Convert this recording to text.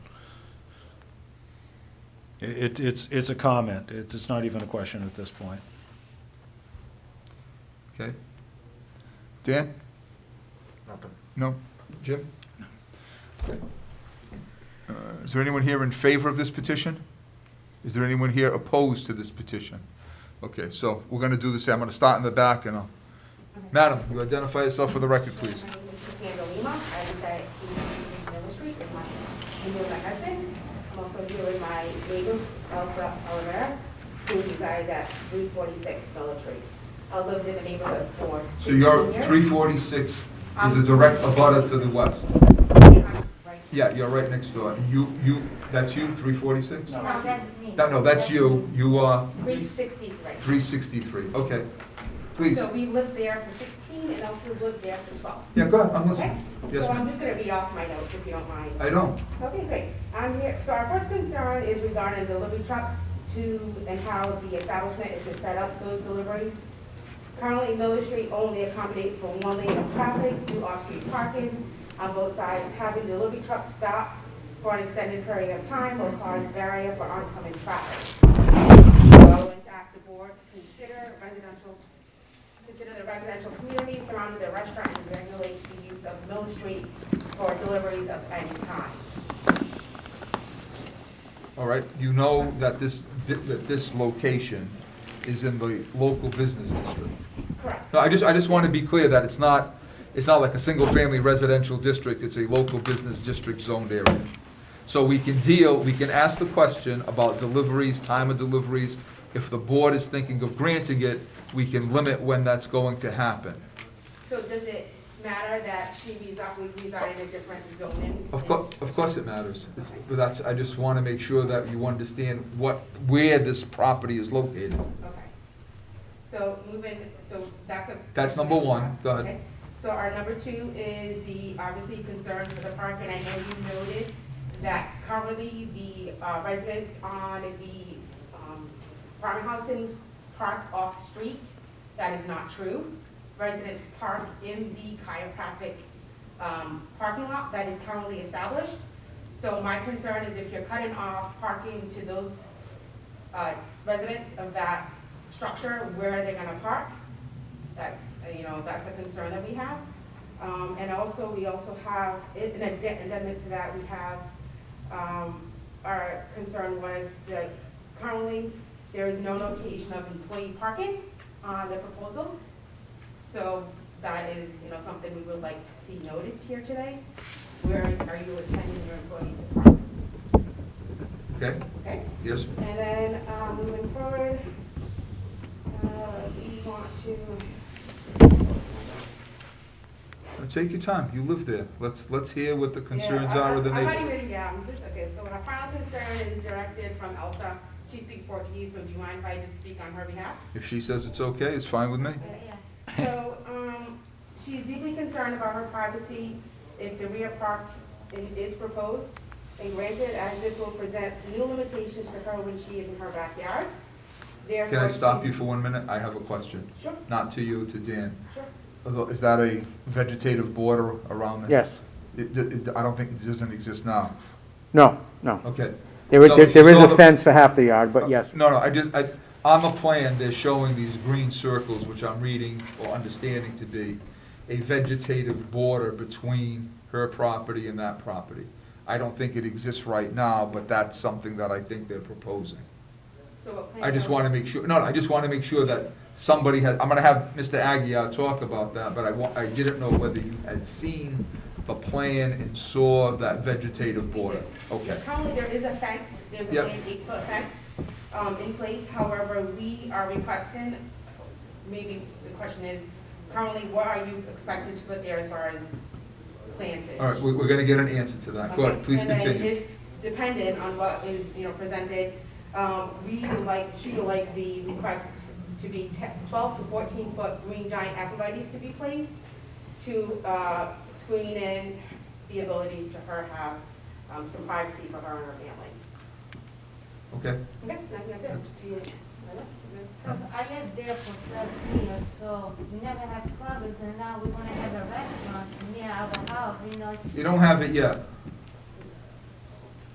It, it's, it's a comment. It's, it's not even a question at this point. Okay. Dan? Nothing. No? Jim? Okay. Uh, Is there anyone here in favor of this petition? Is there anyone here opposed to this petition? Okay, so we're gonna do this, I'm gonna start in the back and I'll, Madam, you identify yourself for the record, please. My name is Cassandra Lima. I reside in Village Street with my, I'm here with my husband. I'm also here with my neighbor, Elsa Olivera, who resides at 346 Village Street. I've lived in the neighborhood for 16 years. forty-six is a direct abutter to the west. I'm right- Yeah, you're right next door. You, you, that's you, three forty-six? No. No, that's me. No, no, that's you, you are 363. three sixty-three, okay. Please, So we lived there for 16, and Elsa's lived there for 12. yeah, go ahead, I'm Okay? listening. Yes, So I'm ma'am. just going to read off my notes if you don't mind. I don't. Okay, great. I'm here, so our first concern is regarding delivery trucks to and how the establishment is to set up those deliveries. Currently, Miller Street only accommodates for one lane of traffic due off-street parking on both sides. Having delivery trucks stop for an extended period of time will cause barrier for oncoming traffic. So, and to ask the board to consider residential, consider the residential community surrounding the restaurant and regulate the use of Miller Street for deliveries of any kind. All right, you know that this, that this location is in the local business district. Correct. No, I just, I just want to be clear that it's not, it's not like a single-family residential district, it's a local business district zoned area. So we can deal, we can ask the question about deliveries, time of deliveries. If the board is thinking of granting it, we can limit when that's going to happen. So does it matter that she resides, we reside in a different zoning? Of course, of course it matters, It's- but that's, I just want to make sure that you understand what, where this property is located. Okay. So moving, so that's a. That's number one. Go ahead. Okay. So our number two is the, obviously, concern for the park, and I know you noted that currently the uh, residents on the um, farmhouse and park off the street. That is not true. Residents park in the chiropractic um, parking lot that is currently established. So my concern is if you're cutting off parking to those uh, residents of that structure, where are they gonna park? That's, uh, you know, that's a concern that we have. Um, and also, we also have, in addi- addendum to that, we have, um, our concern was that currently, there is no notation of employee parking on the proposal. So that is, you know, something we would like to see noted here today. Where are you intending your employees to park, Okay, okay? yes, And then, um, moving forward, uh, we want to, take your time, you live there, let's, let's hear what the concerns Yeah, I- are with the I- I'm not neighborhood. even- Yeah, I'm just, okay, so our final concern is directed from Elsa. She speaks Portuguese, so do you mind if I just speak on her behalf? If she says it's okay, it's fine with me. So, um, she's deeply concerned about her privacy if the rear park i- is proposed and granted, as this will present new limitations to her when she is in her backyard. Can I stop you for one minute? I have a question, Sure, not to you, to Dan. sure. Although, Is that a vegetative border around there? Yes, It, it, I don't think, it doesn't exist now. no, no. Okay. There is, So- there- there is so a the- Oh, fence for half the yard, but yes, Uh, No, no, I just, I, on the plan, they're showing these green circles, which I'm reading or understanding to be a vegetative border between her property and that property. I don't think it exists right now, but that's something that I think they're proposing. So what plan? I just want to make sure, no, no, I just want to make sure that somebody has, I'm gonna have Mr. Aguirre talk about that, but I wa, I didn't know whether you had seen the plan and saw that vegetative border. Okay, Currently, there is a fence, there's a Yep. eight- eight-foot fence um, in place, however, we are requesting, maybe the question is, currently, what are you expected to put there as far as planting? all right, we, we're gonna get an answer to that. Go ahead, Okay, please And then continue. if, dependent on what is, you know, presented, um, we would like, she would like the request to be te- twelve to fourteen foot green giant arborvitae's to be placed to, uh, screen in the ability to her have, um, some privacy for her and her family. Okay, Okay, I think that's it. Do you- Because I lived there for twelve years, so we never had problems, and now we're gonna have a restaurant near our house, you know. you don't have it yet.